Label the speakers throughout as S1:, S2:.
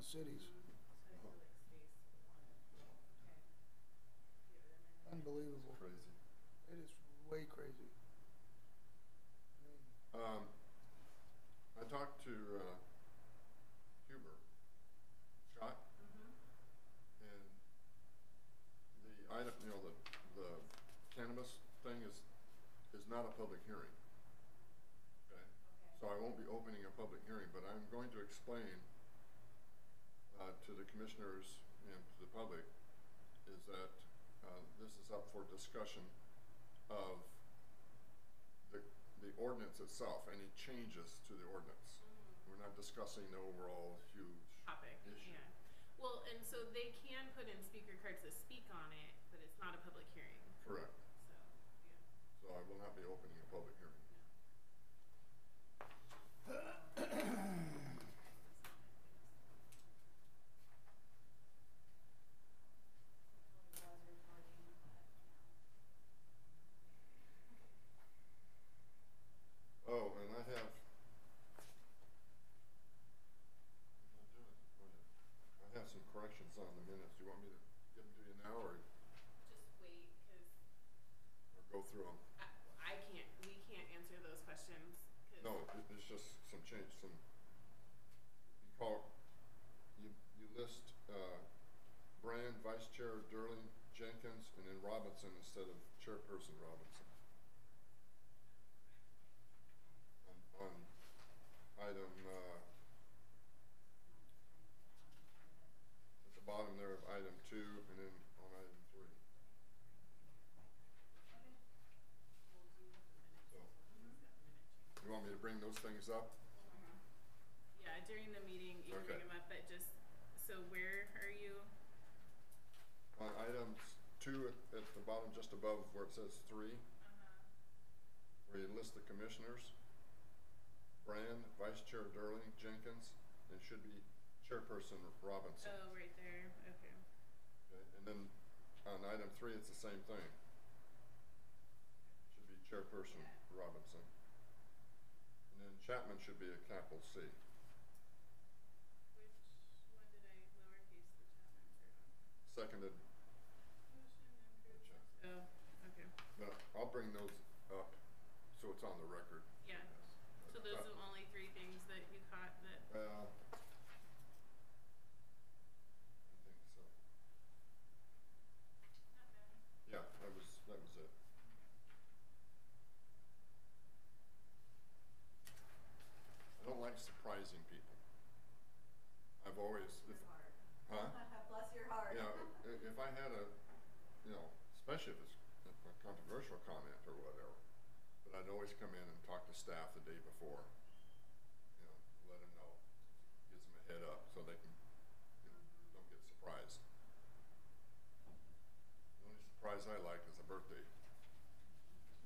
S1: cities. Unbelievable.
S2: Crazy.
S1: It is way crazy. I mean,
S2: Um, I talked to uh, Huber, Scott, and the item, you know, the, the cannabis thing is, is not a public hearing. Okay? So I won't be opening a public hearing, but I'm going to explain uh, to the commissioners and to the public is that uh, this is up for discussion of the, the ordinance itself, any changes to the ordinance. We're not discussing the overall huge
S3: Mm-hmm. topic.
S2: issue.
S3: Yeah. Well, and so they can put in speaker cards that speak on it, but it's not a public hearing.
S2: Correct.
S3: So, yeah.
S2: So I will not be opening a public hearing. Oh, and I have. I'm not doing it. Go ahead. I have some corrections on the minutes. Do you want me to give them to you now or,
S3: Just wait, because
S2: or go through them?
S3: I, I can't, we can't answer those questions. 'cause-
S2: No, it- it's just some change, some, you call, you, you list, uh, Brand, Vice Chair Durling, Jenkins, and then Robinson instead of Chairperson Robinson. On, on item, uh, at the bottom there of item two, and then on item three. So, you want me to bring those things up?
S3: Yeah, during the meeting, you can bring
S2: Okay.
S3: them up, but just, so where are you?
S2: On items two at- at the bottom, just above where it says three, Uh-huh. where you list the commissioners, Brand, Vice Chair Durling, Jenkins, and it should be Chairperson Robinson.
S3: Oh, right there, okay.
S2: Okay, And then on item three, it's the same thing. Should be Chairperson Robinson. And then Chapman should be a capital C.
S3: Which one did I lowercase the chapter
S2: Seconded,
S3: on? Oh, okay.
S2: but I'll bring those up so it's on the record.
S3: Yeah. So those are the only three things that you caught that,
S2: Well, I think so. Yeah, that was, that was it. I don't like surprising people. I've always, if, huh?
S4: Bless your heart.
S2: Yeah, i- if I had a, you know, especially if it's a controversial comment or whatever, but I'd always come in and talk to staff the day before, you know, let them know, gives them a head up so they can, you know, don't get surprised. The only surprise I like is a birthday.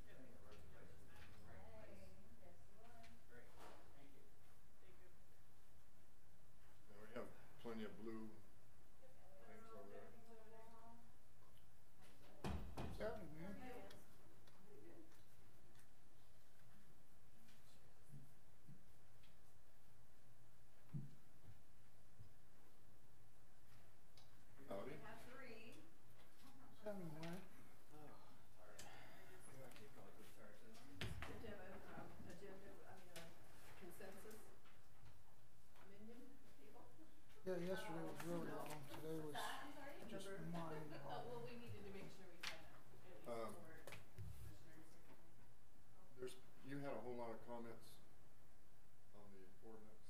S4: Hey, yes, you are.
S2: And we have plenty of blue things over there.
S1: What's happening, man?
S2: Howdy.
S4: We have three.
S1: What's happening, man?
S4: Agenda, um, agenda, I mean, uh, consensus. Minion people.
S1: Yeah, yesterday was really long. Today was just mind
S3: well,
S1: blowing.
S3: we needed to make sure we had it
S2: Um,
S3: was for commissioners.
S2: There's, you had a whole lot of comments on the ordinance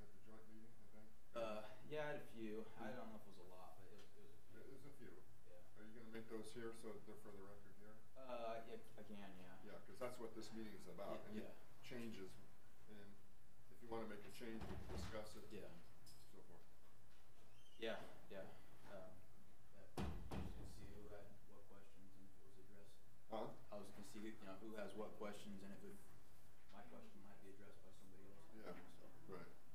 S2: at the joint meeting, I think.
S5: Uh, yeah, I had a few. I don't know if it was a lot, but it was, it was
S2: There
S5: a few.
S2: is a few.
S5: Yeah.
S2: Are you gonna make those here so they're for the record here?
S5: Uh, yeah, I can, yeah.
S2: Yeah, because that's what this meeting is about.
S5: Yeah.
S2: Any changes, and if you wanna make a change, we can discuss it.
S5: Yeah.
S2: So forth.
S5: Yeah, yeah. Um, but I was gonna see who had what questions and if it was addressed.
S2: Huh?
S5: I was gonna see, who- you know, who has what questions and if it, my question might be addressed by somebody else.
S2: Yeah,
S5: So,
S2: right.